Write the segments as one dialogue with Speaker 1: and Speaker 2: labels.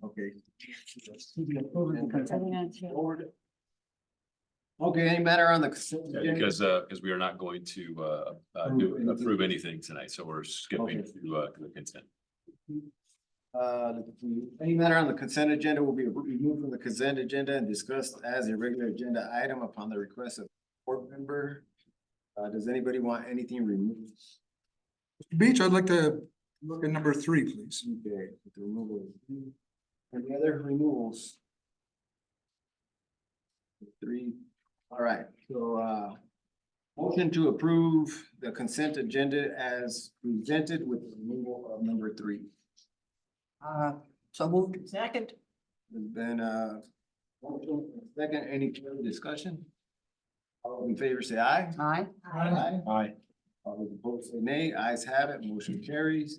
Speaker 1: Friday. To be approved and
Speaker 2: Seventy-nine,
Speaker 1: consented
Speaker 2: two.
Speaker 1: forward. Okay, any matter on the consent?
Speaker 3: Yeah,
Speaker 1: agenda?
Speaker 3: Because, uh, because we are not going to, uh, uh, do,
Speaker 1: Approve
Speaker 3: approve anything tonight, so we're skipping
Speaker 1: Okay.
Speaker 3: to, uh, to the consent.
Speaker 1: Uh, any matter on the consent agenda will be removed from the consent agenda and discussed as a regular agenda item upon the request of board member. Uh, does anybody want anything removed?
Speaker 4: Beach, I'd like to look at number three, please.
Speaker 1: Okay, with the removal. Any other removals? Three, all right, so, uh. Motion to approve the consent agenda as presented with the removal of number three.
Speaker 2: Uh, so moved. Second.
Speaker 1: There's been a motion and a second, any further discussion? All those in favor say aye.
Speaker 2: Aye.
Speaker 1: Aye. Aye. All those opposed say nay, ayes have it, motion carries.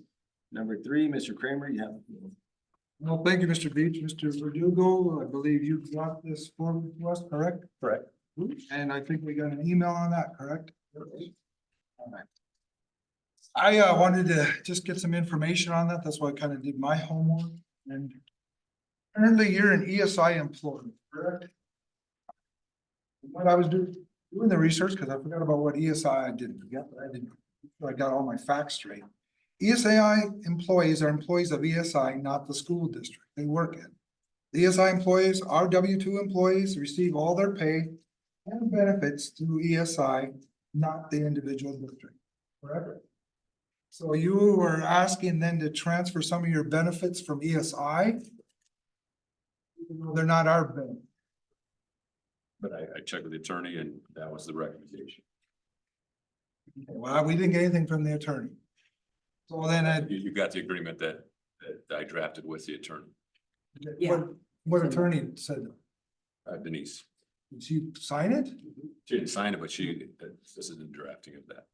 Speaker 1: Number three, Mr. Kramer, you have. the floor.
Speaker 4: Well, thank you, Mr. Beach. Mr. Verdugo, I believe you brought this forward to us, correct?
Speaker 1: Correct.
Speaker 4: And I think we got an email on that, correct?
Speaker 1: All right.
Speaker 4: I uh wanted to just get some information on that. That's why I kind of did my homework and currently you're an ESI employee, correct? What I was doing, doing the research, because I forgot about what ESI I did, forget, but I didn't, so I got all my facts straight. E ESI employees are employees of ESI, not the school district they work in. The ESI employees, our W two employees receive all their pay and benefits through ESI, not the individual district, correct? So you were asking then to transfer some of your benefits from E ESI? Even though They're not our benefits.
Speaker 3: But I, I checked with the attorney and that was the recommendation.
Speaker 4: Well, we didn't get anything from the attorney. So then I,
Speaker 3: You, you got the agreement that, that I drafted with the attorney,
Speaker 4: what,
Speaker 2: Yeah.
Speaker 4: what attorney said,
Speaker 3: uh, Denise.
Speaker 4: did she sign it?
Speaker 3: She didn't sign it, but she, uh, this is the drafting of that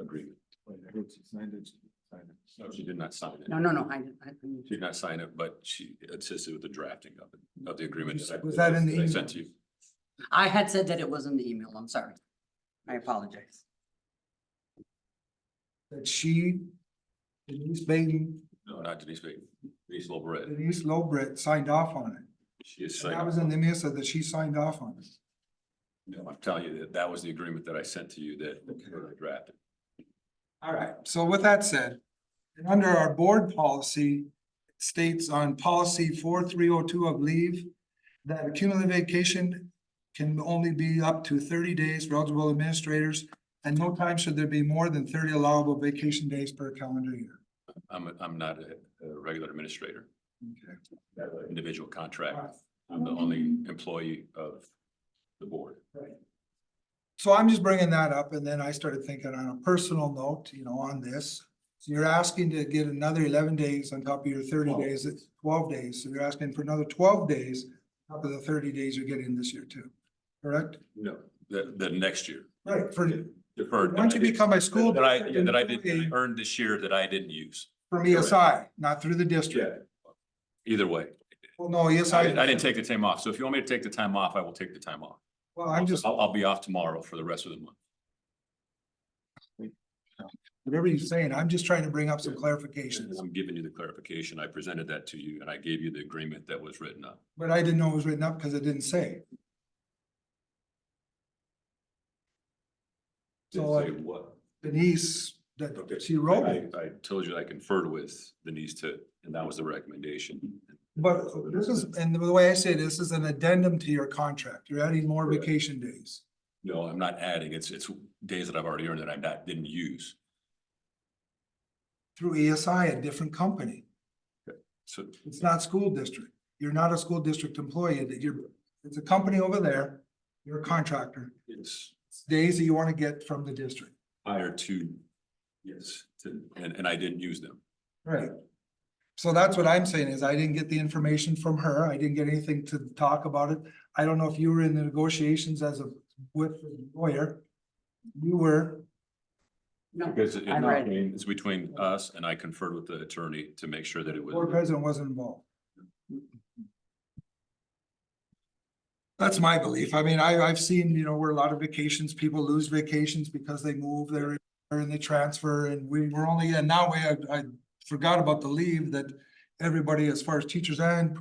Speaker 3: agreement.
Speaker 1: Wait, I heard she signed it, she signed it.
Speaker 3: No, she did not sign it.
Speaker 2: No, no, no, I, I,
Speaker 3: She did not sign it, but she assisted with the drafting of it, of the agreement. I-
Speaker 4: Was that in the
Speaker 3: I
Speaker 4: email?
Speaker 3: sent to you.
Speaker 2: I had said that it was in the email, I'm sorry. I apologize.
Speaker 4: That she, Denise Baden,
Speaker 3: No, not Denise, Baker. Denise Lobret.
Speaker 4: Denise Lobret signed off on it.
Speaker 3: She is
Speaker 4: And That was
Speaker 3: saying,
Speaker 4: in the MISA that she signed off on it.
Speaker 3: no, I'm telling you that that was the agreement that I sent to you that that I drafted.
Speaker 4: All right, so with that said, and under our board policy it states on policy four three oh two of leave that accumulated vacation can only be up to thirty days for eligible administrators and no time should there be more than thirty allowable vacation days per calendar year.
Speaker 3: I'm, I'm not a, a regular administrator,
Speaker 4: Okay.
Speaker 3: individual contract. I'm the only employee of the board.
Speaker 4: So I'm just bringing that up and then I started thinking on a personal note, you know, on this. So you're asking to get another eleven days on top of your thirty
Speaker 3: Twelve.
Speaker 4: days, it's twelve days. So you're asking for another twelve days on top of the thirty days you're getting this year too, correct?
Speaker 3: No. The, the next year.
Speaker 4: Right. For,
Speaker 3: Deferred.
Speaker 4: once you become a school.
Speaker 3: That I,
Speaker 4: district
Speaker 3: yeah, that I did,
Speaker 4: employee
Speaker 3: that I earned this year that I didn't use.
Speaker 4: From ESI, not through the district.
Speaker 3: Either way,
Speaker 4: Well, no, ESI.
Speaker 3: I, I didn't take the time off. So if you want me to take the time off, I will take the time off.
Speaker 4: Well, I'm just,
Speaker 3: I'll, I'll be off tomorrow for the rest of the month.
Speaker 4: whatever you're saying, I'm just trying to bring up some clarifications,
Speaker 3: I'm giving you the clarification. I presented that to you and I gave you the agreement that was written up.
Speaker 4: but I didn't know it was written up because it didn't say.
Speaker 3: Did
Speaker 4: So,
Speaker 3: say
Speaker 4: like,
Speaker 3: what?
Speaker 4: Denise,
Speaker 3: Okay.
Speaker 4: that she wrote
Speaker 3: I,
Speaker 4: it.
Speaker 3: I told you I conferred with Denise to, and that was the recommendation.
Speaker 4: But this is, and the way I say this is an addendum to your contract. You're adding more
Speaker 3: Correct.
Speaker 4: vacation days.
Speaker 3: No, I'm not adding. It's, it's days that I've already earned that I'm not, didn't use.
Speaker 4: Through ESI, a different company.
Speaker 3: So
Speaker 4: It's not school district. You're not a school district employee that you're, it's a company over there. You're a contractor.
Speaker 3: it's
Speaker 4: It's days that you want to get from the district.
Speaker 3: prior to, yes, to, and, and I didn't use them.
Speaker 4: Right. So that's what I'm saying is I didn't get the information from her. I didn't get anything to talk about it. I don't know if you were in the negotiations as a, with the lawyer. You were,
Speaker 2: No,
Speaker 3: Because it-
Speaker 2: I'm ready.
Speaker 3: it's between us and I conferred with the attorney to make sure that it
Speaker 4: board
Speaker 3: was.
Speaker 4: president wasn't involved. That's my belief. I mean, I, I've seen, you know, where a lot of vacations, people lose vacations because they move, they're, they're in the transfer and we were only, and now we, I, I forgot about the leave that everybody, as far as teachers and